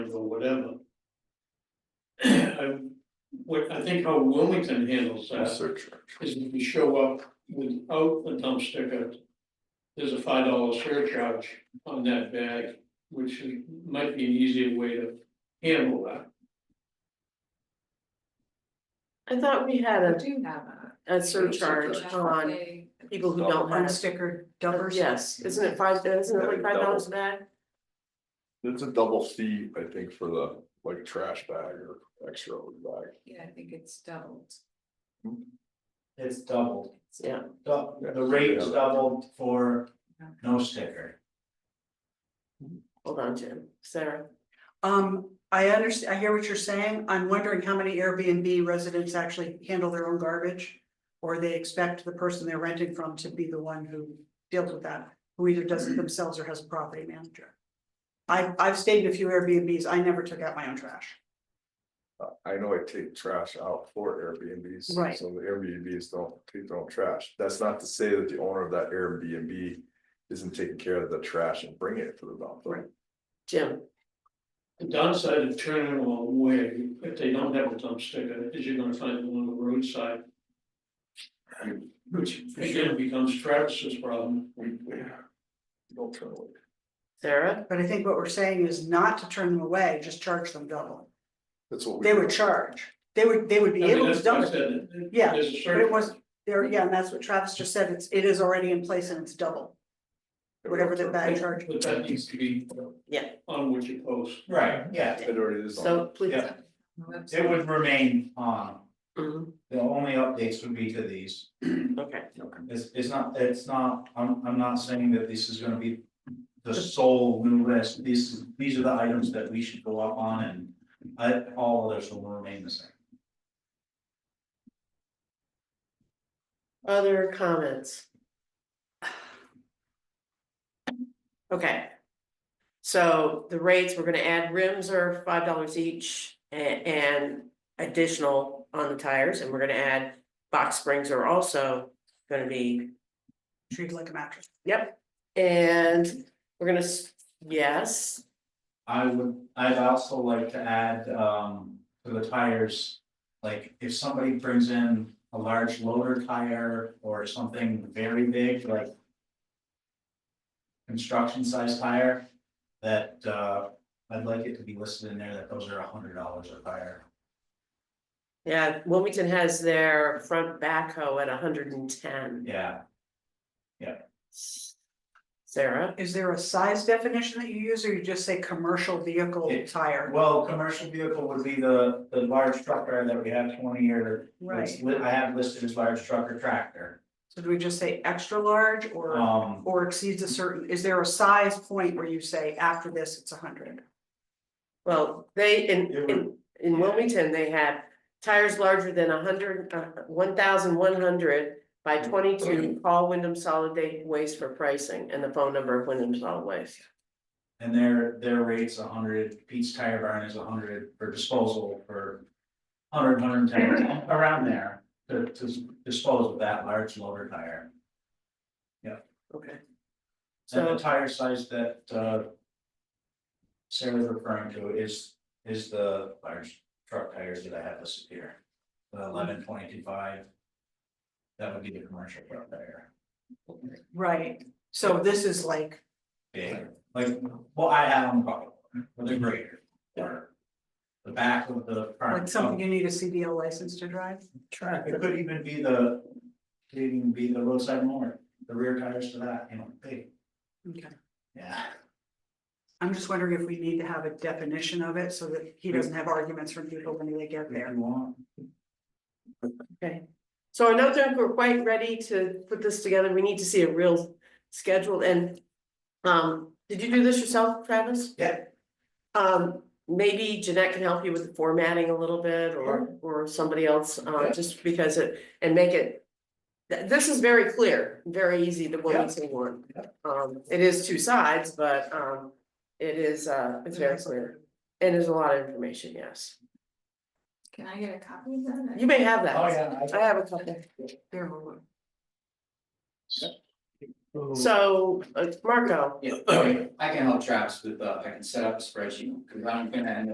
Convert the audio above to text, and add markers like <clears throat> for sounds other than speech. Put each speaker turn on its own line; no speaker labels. whatever. I, what, I think how Wilmington handles that
Search.
is if you show up without a dump sticker. There's a five dollar surcharge on that bag, which is- might be an easier way to handle that.
I thought we had
I
a,
do have a.
a surcharge on people who don't have.
Unstickered dumpers.
uh, Yes, isn't it five, isn't it like five dollars a bag?
It's a double fee, I think, for the like trash bag or extra bag.
Yeah, I think it's doubled.
It's doubled,
Yeah.
Dou- the rate is doubled for no sticker.
Hold on, Jim, Sarah,
Um, I understand, I hear what you're saying. I'm wondering how many Airbnb residents actually handle their own garbage? Or they expect the person they're renting from to be the one who deals with that, who either does it themselves or has a property manager. I, I've stayed in a few Airbnbs. I never took out my own trash.
I know I take trash out for Airbnbs.
Right.
So the Airbnbs don't take their own trash. That's not to say that the owner of that Airbnb isn't taking care of the trash and bringing it to the dump.
Right.
Jim,
The downside of turning them away, if they don't have a dump sticker, is you're gonna find them on the roadside. Which again becomes Travis's problem.
We, we don't turn away.
Sarah,
But I think what we're saying is not to turn them away, just charge them double.
That's what we.
They would charge. They would, they would be
I mean,
able to
that's what I
dump it.
said, it- it-
Yeah,
there's a
But
certain-
it was, there, yeah, and that's what Travis just said. It's, it is already in place and it's double, whatever the bag charge.
But that needs to be
yeah,
on what you post.
Right, yeah,
It already is. on-
so please.
yeah, it would remain on,
Mhm,
the only updates would be to these.
okay,
It's, it's not, it's not, I'm, I'm not saying that this is gonna be the sole new list, these, these are the items that we should go up on and. I, all others will remain the same.
other comments? Okay. So the rates, we're gonna add rims are five dollars each a- and additional on the tires, and we're gonna add box springs are also gonna be
Treated like a mattress.
Yep, and we're gonna, s- yes,
I would, I'd also like to add, um, to the tires, like, if somebody brings in a large loader tire or something very big, like. Construction size tire, that, uh, I'd like it to be listed in there that those are a hundred dollars or higher.
yeah, Wilmington has their front backhoe at hundred and ten,
Yeah,
Sarah,
Is there a size definition that you use, or you just say commercial vehicle
It-
tire?
well, commercial vehicle would be the, the large trucker that we have twenty year.
Right,
I have listed as large trucker tractor,
so do we just say extra large or,
um,
or exceeds a certain, is there a size point where you say after this, it's a hundred?
well, they, in,
It
in, in Wilmington, they have. Tires larger than hundred, uh, one thousand one hundred by
Mm.
twenty-two, call Wyndham Solid Waste for pricing and the phone number of Wyndham Solid Waste.
And their, their rate's a hundred, Pete's Tire Barn is a hundred for disposal for. Hundred, hundred and ten, around there, to, to dispose of that large loader tire.
Okay.
And
So,
the tire size that, uh. Sarah's referring to is, is the large truck tires that I have listed here, the eleven twenty-two five. That would be the commercial truck tire,
Right, so this is like,
big, like, well, I have on the bucket, with the grader, or. The back of the. front
like something you need a CDL license to drive?
It could even be the, could even be the roadside mower, the rear tires to that, you know, big,
Okay,
yeah.
I'm just wondering if we need to have a definition of it so that he doesn't have arguments from people when they get there.
If you want.
so I don't think we're quite ready to put this together, we need to see a real schedule and. Um, did you do this yourself, Travis?
Yeah.
Um, maybe Jeanette can help you with the formatting a little bit or, or somebody else, uh,
Yeah.
just because it, and make it. th- this is very clear, very easy, the
Yeah.
Wilmington one. Um, it is two sides, but, um, it is, uh, it's very clear. And there's a lot of information, yes.
Can I get a copy of that?
You may have that.
Oh, yeah.
I have a couple.
Mm-hmm.
There, hold on.
So, uh, Marco.
<clears throat> Yeah, I can help Travis with, uh, I can set up a spreadsheet, because I'm gonna end up